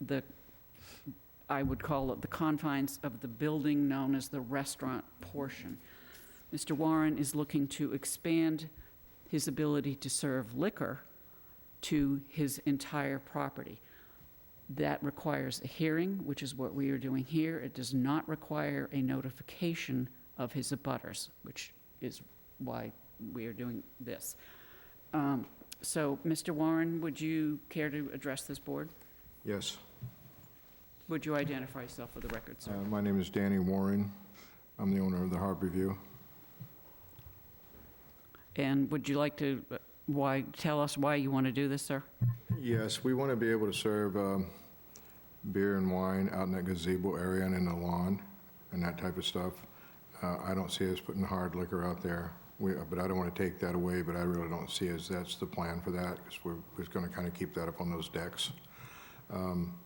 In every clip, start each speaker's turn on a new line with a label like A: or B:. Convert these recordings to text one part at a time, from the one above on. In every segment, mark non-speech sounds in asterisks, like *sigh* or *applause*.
A: the, I would call it the confines of the building known as the restaurant portion. Mr. Warren is looking to expand his ability to serve liquor to his entire property. That requires a hearing, which is what we are doing here. It does not require a notification of his abutters, which is why we are doing this. Um, So, Mr. Warren, would you care to address this board?
B: Yes,
A: Would you identify yourself for the record,
B: uh,
A: sir?
B: my name is Danny Warren. I'm the owner of the Harbor View.
A: And would you like to, uh, why, tell us why you want to do this, sir?
B: Yes, we want to be able to serve um, beer and wine out in that gazebo area and in the lawn and that type of stuff. Uh, I don't see us putting hard liquor out there, We- uh, but I don't want to take that away, but I really don't see us, that's the plan for that, because we're, we're going to kind of keep that up on those decks. Um,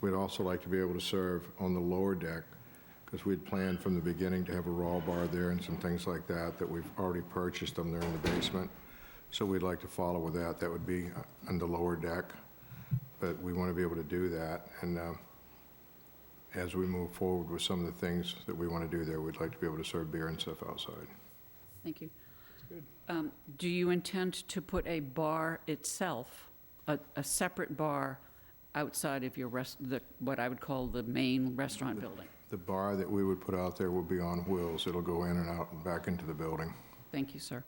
B: We'd also like to be able to serve on the lower deck, because we'd planned from the beginning to have a raw bar there and some things like that, that we've already purchased them there in the basement. So we'd like to follow with that. That would be uh, on the lower deck, but we want to be able to do that. And uh, as we move forward with some of the things that we want to do there, we'd like to be able to serve beer and stuff outside.
A: Thank you. Um, Do you intend to put a bar itself, a, a separate bar outside of your rest, the, what I would call the main restaurant building?
B: The bar that we would put out there will be on wheels. It'll go in and out and back into the building.
A: Thank you, sir.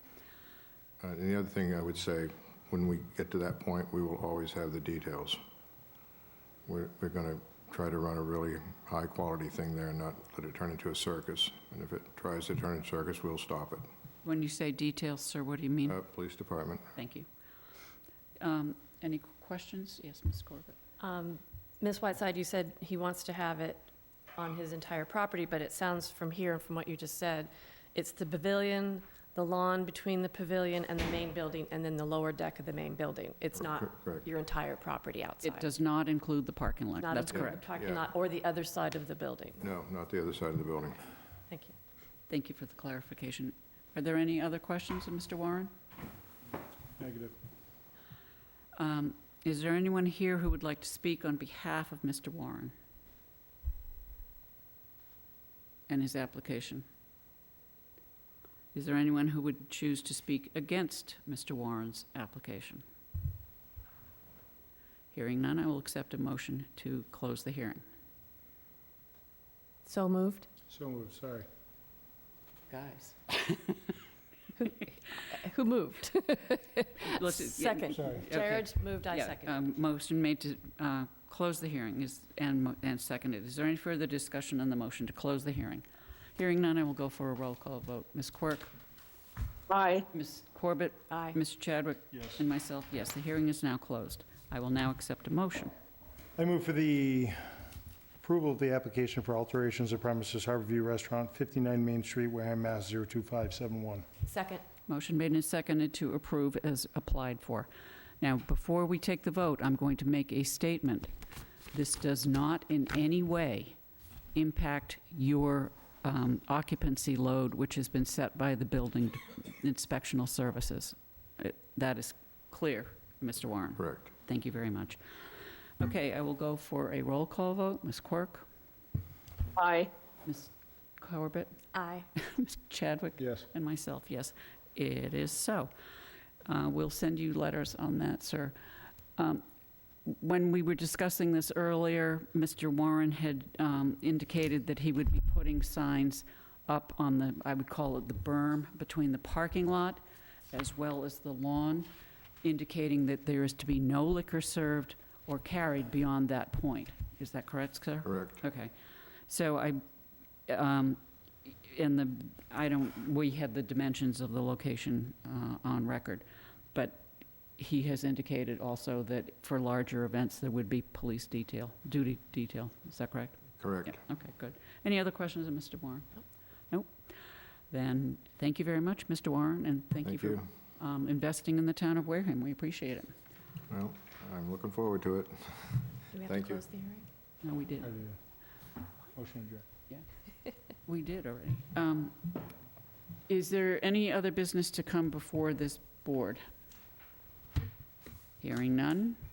B: Uh, And the other thing I would say, when we get to that point, we will always have the details. We're, we're going to try to run a really high-quality thing there and not let it turn into a circus. And if it tries to turn into a circus, we'll stop it.
A: When you say details, sir, what do you mean?
B: Uh, Police Department.
A: Thank you. Um, Any questions? Yes, Ms. Corbett?
C: Um, Ms. Whiteside, you said he wants to have it on his entire property, but it sounds from here and from what you just said, it's the pavilion, the lawn between the pavilion and the main building, and then the lower deck of the main building. It's not
B: Correct.
C: your entire property outside.
A: It does not include the parking lot.
C: Not
A: That's
C: including
A: correct.
C: the parking
B: Yeah.
C: lot Or the other side of the building.
B: No, not the other side of the building.
C: Thank you.
A: Thank you for the clarification. Are there any other questions of Mr. Warren?
D: Negative.
A: Um, Is there anyone here who would like to speak on behalf of Mr. Warren and his application? Is there anyone who would choose to speak against Mr. Warren's application? Hearing none, I will accept a motion to close the hearing.
C: So moved?
D: So moved, sorry.
A: Guys.
C: *laughs*
A: *laughs*
C: Who moved? Second.
D: Sorry.
A: Okay.
C: Jared moved, I
A: Yeah,
C: second.
A: um, Motion made to uh, close the hearing is, and, mo- and seconded. Is there any further discussion on the motion to close the hearing? Hearing none, I will go for a roll call vote. Ms. Quirk? Aye. Ms. Corbett?
C: Aye.
A: Mr. Chadwick?
D: Yes.
A: And myself, yes, the hearing is now closed. I will now accept a motion.
D: I move for the approval of the application for alterations of premises Harborview Restaurant, 59 Main Street, Wareham, Mass. 02571.
C: Second.
A: Motion made and seconded to approve as applied for. Now, before we take the vote, I'm going to make a statement. This does not in any way impact your um, occupancy load, which has been set by the Building Inspectional Services. It- That is clear, Mr. Warren.
B: Correct.
A: Thank you very much. Okay, I will go for a roll call vote. Ms. Quirk?
C: Aye.
A: Ms. Corbett? *laughs*
C: Aye.
A: Ms. Chadwick?
D: Yes.
A: And myself, yes, it is so. Uh, We'll send you letters on that, sir. Um, When we were discussing this earlier, Mr. Warren had um, indicated that he would be putting signs up on the, I would call it the berm, between the parking lot as well as the lawn, indicating that there is to be no liquor served or carried beyond that point. Is that correct, sir?
B: Correct.
A: Okay, so I, um, in the, I don't, we had the dimensions of the location uh, on record, but he has indicated also that for larger events, there would be police detail, duty detail, is that correct?
B: Correct.
A: Yeah, Okay, good. Any other questions of Mr. Warren?
C: Nope.
A: Nope. Then, thank you very much, Mr. Warren, and thank you
B: Thank
A: for
B: you.
A: um, investing in the town of Wareham, we appreciate it.
B: Well, I'm looking forward to it.
C: Do we have to
B: Thank you.
C: close the hearing?
A: No, we did,
D: I did. Motion adjourned.
A: we did already. Um, Is there any other business to come before this board? Hearing none,